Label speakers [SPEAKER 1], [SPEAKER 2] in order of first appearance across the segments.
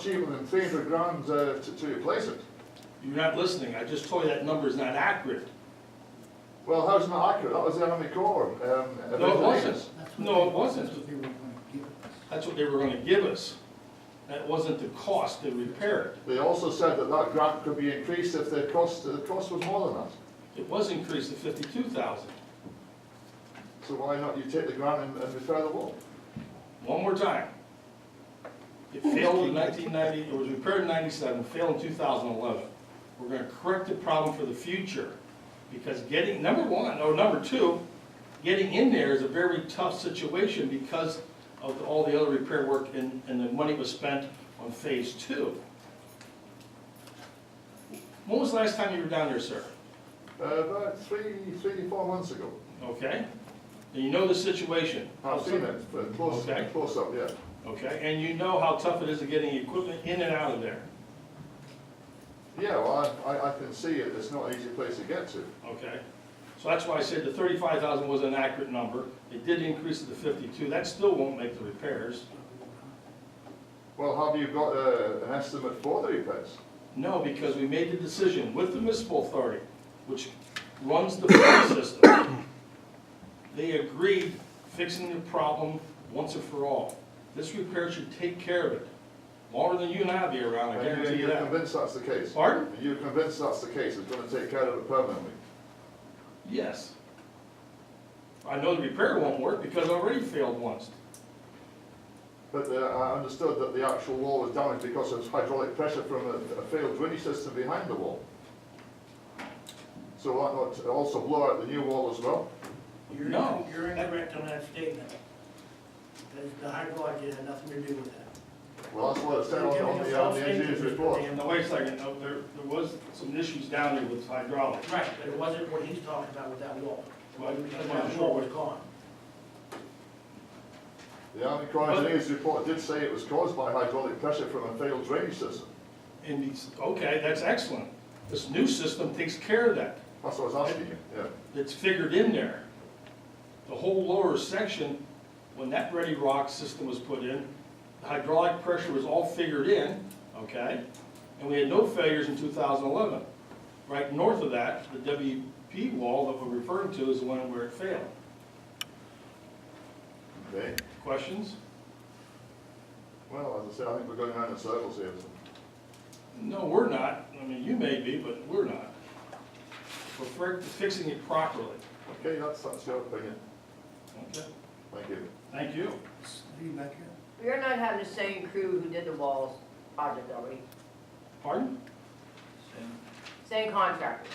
[SPEAKER 1] cheaper than three hundred grand uh, to, to replace it.
[SPEAKER 2] You're not listening, I just told you that number's not accurate.
[SPEAKER 1] Well, how's it not accurate? That was the Army Corps. Um,
[SPEAKER 2] No, it
[SPEAKER 1] originally.
[SPEAKER 2] wasn't.
[SPEAKER 3] That's what
[SPEAKER 2] No,
[SPEAKER 3] they-
[SPEAKER 2] it wasn't.
[SPEAKER 3] That's what they were gonna give us.
[SPEAKER 2] That's what they were gonna give us. That wasn't the cost to repair it.
[SPEAKER 1] They also said that that grant could be increased if the cost, the cost was more than that.
[SPEAKER 2] It was increased to fifty-two thousand.
[SPEAKER 1] So why not you take the grant and, and repair the wall?
[SPEAKER 2] One more time. It failed in nineteen ninety, it was repaired in ninety-seven, failed in two thousand eleven. We're gonna correct the problem for the future, because getting, number one, or number two, getting in there is a very tough situation because of all the other repair work and, and the money was spent on phase two. When was the last time you were down there, sir?
[SPEAKER 1] Uh, about three, three, four months ago.
[SPEAKER 2] Okay? And you know the situation.
[SPEAKER 1] I've seen it, uh, close,
[SPEAKER 2] Okay.
[SPEAKER 1] close up, yeah.
[SPEAKER 2] Okay, and you know how tough it is to getting equipment in and out of there.
[SPEAKER 1] Yeah, well, I, I, I can see it. It's not an easy place to get to.
[SPEAKER 2] Okay, so that's why I said the thirty-five thousand was an accurate number, it did increase it to fifty-two, that still won't make the repairs.
[SPEAKER 1] Well, have you got, uh, an estimate for the repairs?
[SPEAKER 2] No, because we made the decision with the municipal authority, which runs the phone system. They agreed fixing the problem once and for all. This repair should take care of it, longer than you and I'll be around, I
[SPEAKER 1] And you-
[SPEAKER 2] guarantee you
[SPEAKER 1] You're
[SPEAKER 2] that.
[SPEAKER 1] convinced that's the case?
[SPEAKER 2] Pardon?
[SPEAKER 1] You're convinced that's the case? It's gonna take care of it permanently?
[SPEAKER 2] Yes. I know the repair won't work because I already failed once.
[SPEAKER 1] But uh, I understood that the actual wall was damaged because of hydraulic pressure from a a failed drainage system behind the wall. So why not also blow out the new wall as well?
[SPEAKER 4] You're
[SPEAKER 2] No.
[SPEAKER 4] You're incorrect on that statement. Because the hydrology had nothing to do with that.
[SPEAKER 1] Well, that's what it said on on the on the engineer's report.
[SPEAKER 2] And wait a second, no, there, there was some issues down there with hydraulic.
[SPEAKER 4] Right, but it wasn't what he's talking about with that wall.
[SPEAKER 2] Well,
[SPEAKER 4] Because that wall was gone.
[SPEAKER 1] The Army Corps engineer's report did say it was caused by hydraulic pressure from a failed drainage system.
[SPEAKER 2] And he's, okay, that's excellent. This new system takes care of that.
[SPEAKER 1] That's what I was asking you, yeah.
[SPEAKER 2] It's figured in there. The whole lower section, when that ready rock system was put in, the hydraulic pressure was all figured in, okay? And we had no failures in two thousand eleven. Right north of that, the WP wall that we're referring to is the one where it failed.
[SPEAKER 1] Okay,
[SPEAKER 2] Questions?
[SPEAKER 1] well, as I say, I think we're going round in circles here.
[SPEAKER 2] No, we're not. I mean, you may be, but we're not. We're fi- fixing it properly.
[SPEAKER 1] Okay, that's, that's your opinion.
[SPEAKER 2] Okay.
[SPEAKER 1] Thank you.
[SPEAKER 2] Thank you.
[SPEAKER 3] Are you back here?
[SPEAKER 5] We're not having the same crew who did the walls project, are we?
[SPEAKER 2] Pardon?
[SPEAKER 5] Same contractor.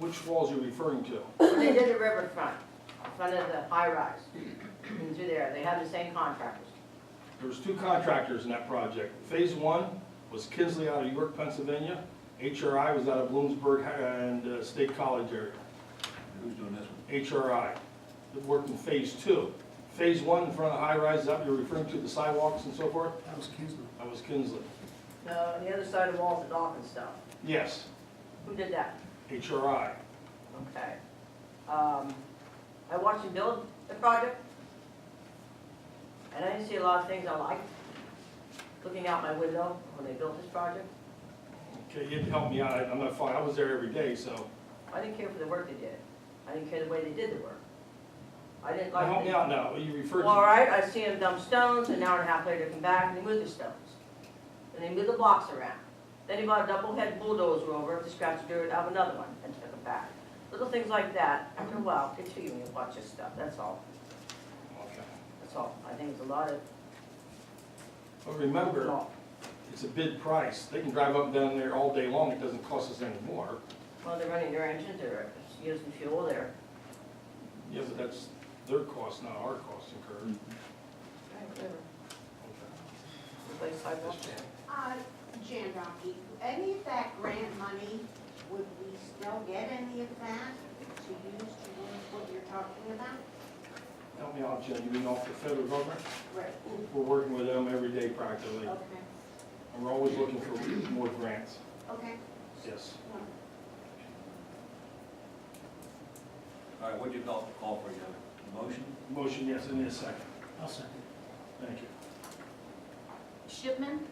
[SPEAKER 2] Which walls you referring to?
[SPEAKER 5] They did the riverfront, in front of the high rise. Into there, they have the same contractors.
[SPEAKER 2] There was two contractors in that project. Phase one was Kinsley out of York, Pennsylvania. HRI was out of Bloomsburg and uh, State College area.
[SPEAKER 6] Who's doing this one?
[SPEAKER 2] HRI that worked in phase two. Phase one in front of the high rises up, you're referring to the sidewalks and so forth?
[SPEAKER 3] That was Kinsler.
[SPEAKER 2] That was Kinsley.
[SPEAKER 5] No, on the other side of the walls, the dock and stuff.
[SPEAKER 2] Yes,
[SPEAKER 5] Who did that?
[SPEAKER 2] HRI.
[SPEAKER 5] Okay. Um, I watched him build the project. And I didn't see a lot of things I liked. Looking out my window when they built this project,
[SPEAKER 2] Okay, you had to help me out. I- I'm not fine. I was there every day, so.
[SPEAKER 5] I didn't care for the work they did. I didn't care the way they did the work. I didn't like.
[SPEAKER 2] Help
[SPEAKER 5] the-
[SPEAKER 2] me out now. You referred
[SPEAKER 5] Well, all
[SPEAKER 2] to,
[SPEAKER 5] right, I see them dump stones, an hour and a half later, come back and they move the stones. And they move the blocks around. Then he brought a double head bulldozer over to scratch the dirt out of another one and took it back. Little things like that, after a while, get to you when you watch this stuff, that's all,
[SPEAKER 2] okay.
[SPEAKER 5] that's all. I think it's a lot of
[SPEAKER 2] But remember,
[SPEAKER 5] talk.
[SPEAKER 2] It's a bid price. They can drive up and down there all day long, it doesn't cost us any more.
[SPEAKER 5] Well, they're running their engines, they're using fuel, they're,
[SPEAKER 2] Yeah, but that's their cost, not our cost incurred.
[SPEAKER 5] Mm-hmm. whatever,
[SPEAKER 2] Okay.
[SPEAKER 5] replace sidewalks.
[SPEAKER 7] Uh, Jan Rocky, any of that grant money, would we still get any of that to use to do what you're talking about?
[SPEAKER 2] Help me out, Jen, you mean off the federal government?
[SPEAKER 7] Right.
[SPEAKER 2] We're working with them every day practically,
[SPEAKER 7] Okay,
[SPEAKER 2] and we're always looking for more grants.
[SPEAKER 7] okay.
[SPEAKER 2] Yes.
[SPEAKER 6] All right, what do you call, call for, you have a motion?
[SPEAKER 2] Motion, yes, in a second.
[SPEAKER 3] I'll second.
[SPEAKER 2] Thank you.
[SPEAKER 7] Should Shipman?